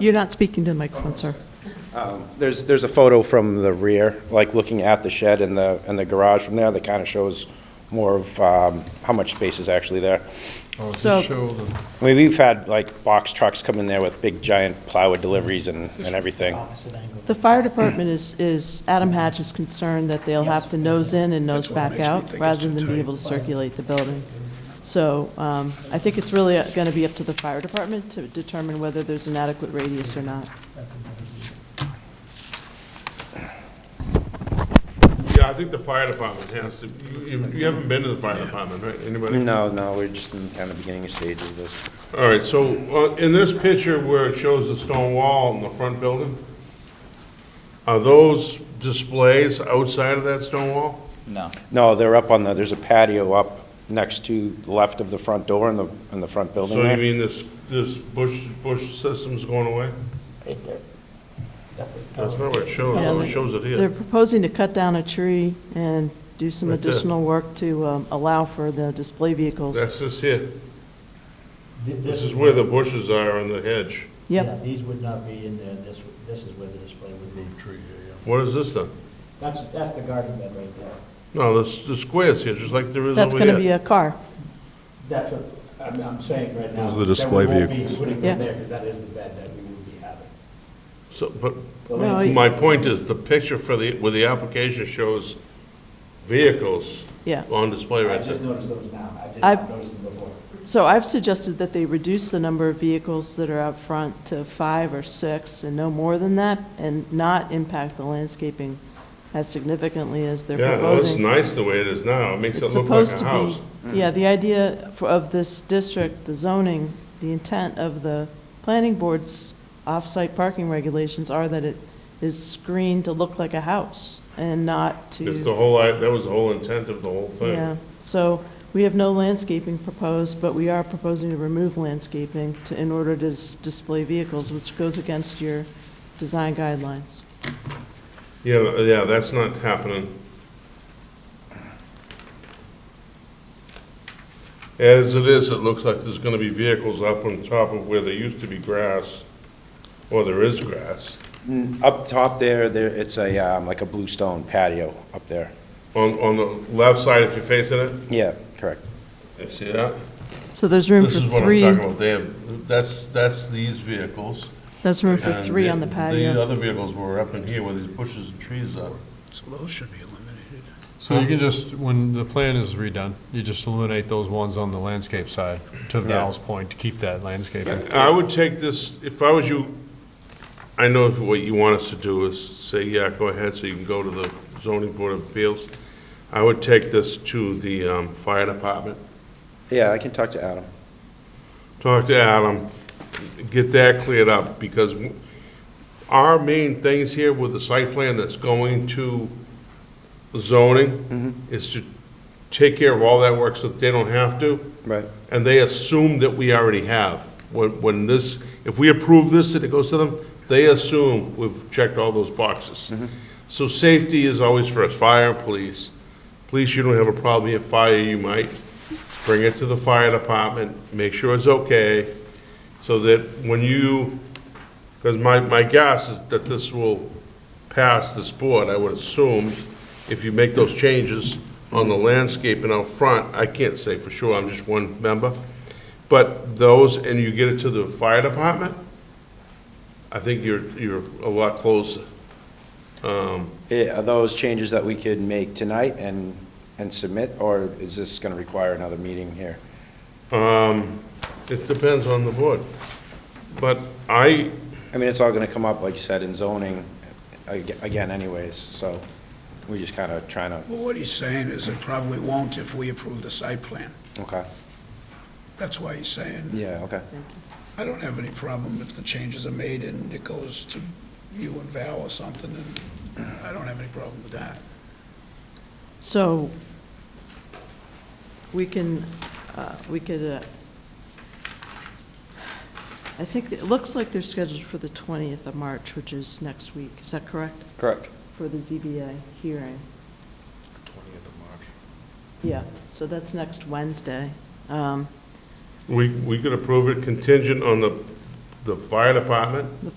You're not speaking to the microphone, sir. Um, There's, there's a photo from the rear, like looking at the shed and the, and the garage from there, that kind of shows more of um, how much space is actually there. Oh, does So- it show the, I mean, we've had like box trucks come in there with big giant plywood deliveries and, and everything. The fire department is, is, Adam Hatch is concerned that they'll have to nose in and nose back out, rather than be able to circulate the building. So um, I think it's really going to be up to the fire department to determine whether there's an adequate radius or not. Yeah, I think the fire department has to, you- you, you haven't been to the fire department, right, anybody? No, no, we're just in kind of beginning stage of this. All right, so, uh, in this picture where it shows the stone wall in the front building, are those displays outside of that stone wall? No. No, they're up on the, there's a patio up next to the left of the front door in the, in the front building So you there. mean this, this bush, bush system's going away? That's not what it shows, Yeah, though, they- it shows it They're here. proposing to cut down a tree and do some Right there. additional work to um, allow for the display vehicles. That's this here, this is where the bushes are in the hedge. Yep, These would not be in there, this, this is where the display would be. What is this then? That's, that's the garden bed right there. No, this, the square's here, just like there is that's over going to be here. a car. That's what I'm, I'm saying right now. Those are the display That vehicles. we won't be putting Yeah. them there, because that is the bed that we would be having. So, but The No, landscape- My point is, the picture for the, where the application shows vehicles Yeah. on display I right just there. noticed those now, I did I've- not notice them before. So I've suggested that they reduce the number of vehicles that are out front to five or six and no more than that, and not impact the landscaping as significantly as they're Yeah, no, it's proposing. nice the way it is now, it makes it It's look like supposed a to house. be, yeah, the idea for- of this district, the zoning, the intent of the planning board's off-site parking regulations are that it is screened to look like a house and not to. It's the whole, i- that was the whole intent of the whole Yeah, thing. so we have no landscaping proposed, but we are proposing to remove landscaping to, in order to s- display vehicles, which goes against your design guidelines. Yeah, yeah, that's not happening. As it is, it looks like there's gonna be vehicles up on top of where there used to be grass, or there is grass, Mm, Up top there, there, it's a, um, like a blue stone patio up there. on, on the left side if you're facing it. Yeah, correct. I see that. So there's room for This is what I'm three, talking about, they have, that's, that's these vehicles. there's room for and three on the The patio. other vehicles were up in here where these bushes and trees are. So those should be eliminated. so you can just, when the plan is redone, you just eliminate those ones on the landscape side, to Val's point, to keep that landscaping. I would take this, if I was you, I know what you want us to do is say, yeah, go ahead, so you can go to the zoning board of appeals. I would take this to the um, fire department, Yeah, I can talk to Adam. talk to Adam, get that cleared up, because our main things here with the site plan that's going to zoning is to take care of all that work so that they don't have to. Right. And they assume that we already have. When, when this, if we approve this and it goes to them, they assume we've checked all those boxes. So safety is always first, fire and police. Police, you don't have a problem, you have fire, you might. Bring it to the fire department, make sure it's okay, so that when you, because my, my guess is that this will pass this board, I would assume, if you make those changes on the landscape and out front, I can't say for sure, I'm just one member, but those, and you get it to the fire department, I think you're, you're a lot closer. Yeah, eh, Are those changes that we could make tonight and, and submit, or is this going to require another meeting here? Um, It depends on the board. But I, I mean, it's all going to come up, like you said, in zoning ag- again anyways, so we're just kind of trying to, Well, what he's saying is it probably won't if we approve the site plan. okay, That's why he's saying, yeah, okay. I don't have any problem if the changes are made and it goes to you and Val or something, and I don't have any problem with that. So we can, uh, we could, uh, I think, it looks like they're scheduled for the 20th of March, which is next week. Is that correct? Correct. For the ZBA hearing. Twentieth of March. Yeah, so that's next Wednesday. Um, we, we could approve it contingent on the the fire department,